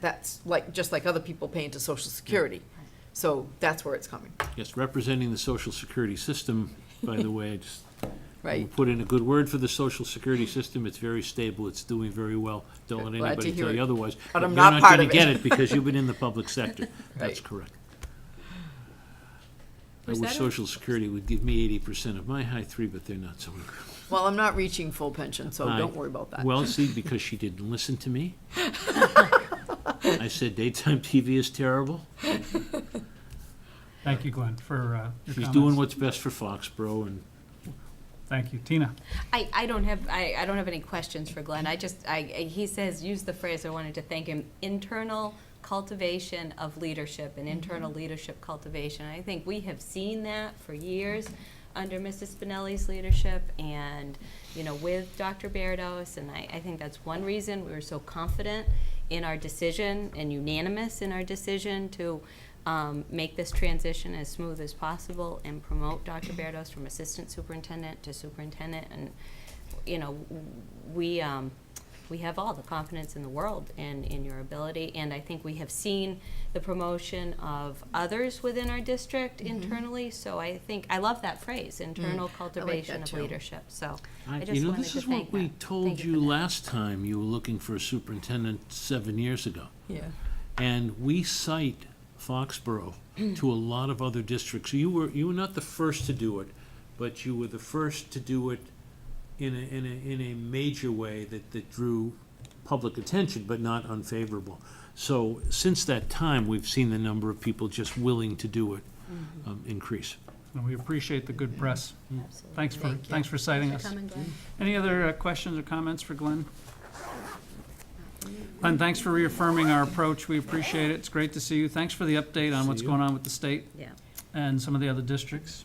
That's like, just like other people paying to social security. So that's where it's coming, Yes, representing the social security system, by the way, I just right? we'll put in a good word for the social security system. It's very stable. It's doing very well. Don't Glad let to anybody hear tell you it. otherwise. But I'm You're not part gonna of it. get it because you've been in the public sector. That's Right. correct. I Was wish that a- social security would give me eighty percent of my high three, but they're not so. Well, I'm not reaching full pension, so I- don't worry about that. Well, see, because she didn't listen to me. I said daytime TV is terrible. Thank you, Glenn, for uh, She's your comments. doing what's best for Foxborough and Thank you. Tina? I, I don't have, I, I don't have any questions for Glenn. I just, I, he says, use the phrase, I wanted to thank him, internal cultivation of leadership and internal leadership cultivation. I think we have seen that for years under Mrs. Spinelli's leadership and, you know, with Dr. Berdows. And I, I think that's one reason we were so confident in our decision and unanimous in our decision to um, make this transition as smooth as possible and promote Dr. Berdows from assistant superintendent to superintendent. And, you know, w- we, um, we have all the confidence in the world in, in your ability. And I think we have seen the promotion of others within our district internally. So I think, I love Mm. that phrase, internal cultivation that of too. leadership. So I- I You just know, wanted this to is what thank we that. told Thank you you for that. last time you were looking for a superintendent seven years ago. Yeah, And we cite Foxborough to a lot of other districts. You were, you were not the first to do it, but you were the first to do it in a, in a, in a major way that, that drew public attention, but not unfavorable. So since that time, we've seen the number of people just willing to do it Mm-hmm. um, increase. And we appreciate the good press. Absolutely. Mm. Thanks for, Thank you. thanks for citing Thanks us. for coming, Glenn. Any other uh, questions or comments for Glenn? Glenn, thanks for reaffirming our approach. We appreciate it. It's great to see you. Thanks for the update on See what's you. going on with the state Yeah. and some of the other districts.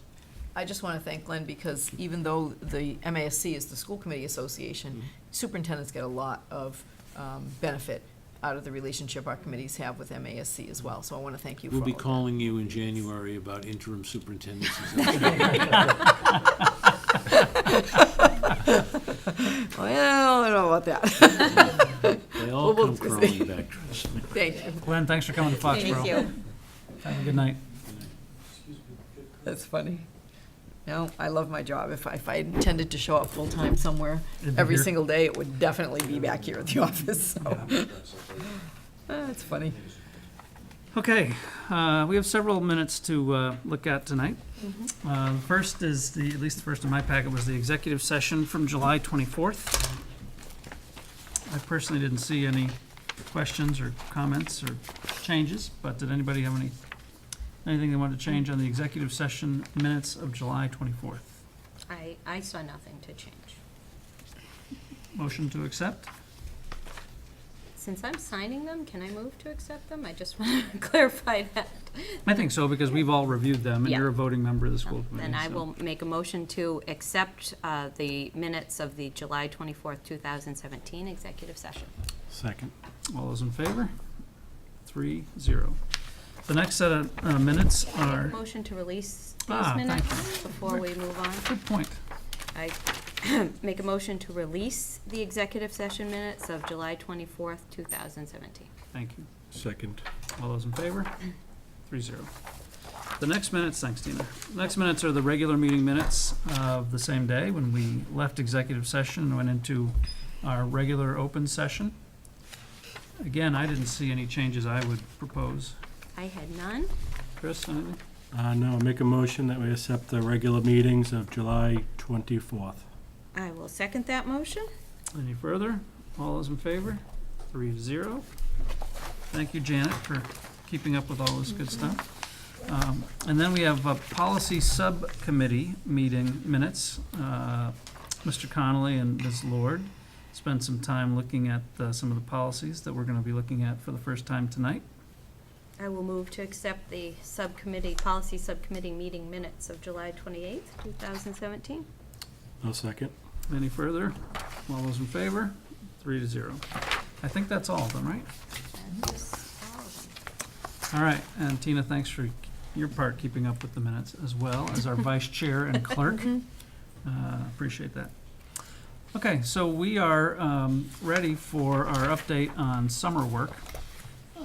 I just want to thank Glenn because even though the MASC is the School Committee Mm-hmm. Association, superintendents get a lot of um, benefit out of the relationship our committees have with MASC as well. So I want to thank you for We'll all be of that. calling you in January about interim superintendents. Well, I don't know about that. They all Well, come we'll- crawling back, trust me. Thank you. Glenn, thanks for coming to Foxborough. Thank you. Have a good night. That's funny. No, I love my job. If I, if I intended to show up full-time somewhere, You'd be every here. single day, it would definitely be back here at the office, so. That's funny. Okay, uh, we have several minutes to uh, look at tonight. Mm-hmm. Uh, the First is the, at least the first in my packet, was the executive session from July 24th. I personally didn't see any questions or comments or changes, but did anybody have any, anything they wanted to change on the executive session minutes of July 24th? I, I saw nothing to change. Motion to accept? Since I'm signing them, can I move to accept them? I just want to clarify that. I think so, because we've all reviewed them, and Yeah. you're a voting member of the school committee. Then I so- will make a motion to accept uh, the minutes of the July 24th, 2017 executive session. Second. All those in favor? Three, zero. The next set of uh, minutes Can I make a are, motion to release those Ah, thank minutes before we move on? good point. I make a motion to release the executive session minutes of July 24th, 2017. Thank you. Second. All those in favor? Three, zero. The next minutes, thanks Tina. Next minutes are the regular meeting minutes of the same day when we left executive session and went into our regular open session. Again, I didn't see any changes I would propose. I had none. Chris, anything? Uh, no, make a motion that we accept the regular meetings of July twenty-fourth. I will second that motion. Any further? All those in favor? Three zero. Thank you, Janet, for keeping up with all this good stuff. Um, And then we have a policy subcommittee meeting minutes. Uh, Mr. Connolly and Ms. Lord spent some time looking at uh, some of the policies that we're going to be looking at for the first time tonight. I will move to accept the subcommittee, policy subcommittee meeting minutes of July 28th, 2017. No second. Any further? All those in favor? Three to zero. I think that's all of them, right? All right, and Tina, thanks for your part keeping up with the minutes as well as our vice chair and clerk. Uh, Appreciate that. Okay, so we are um, ready for our update on summer work.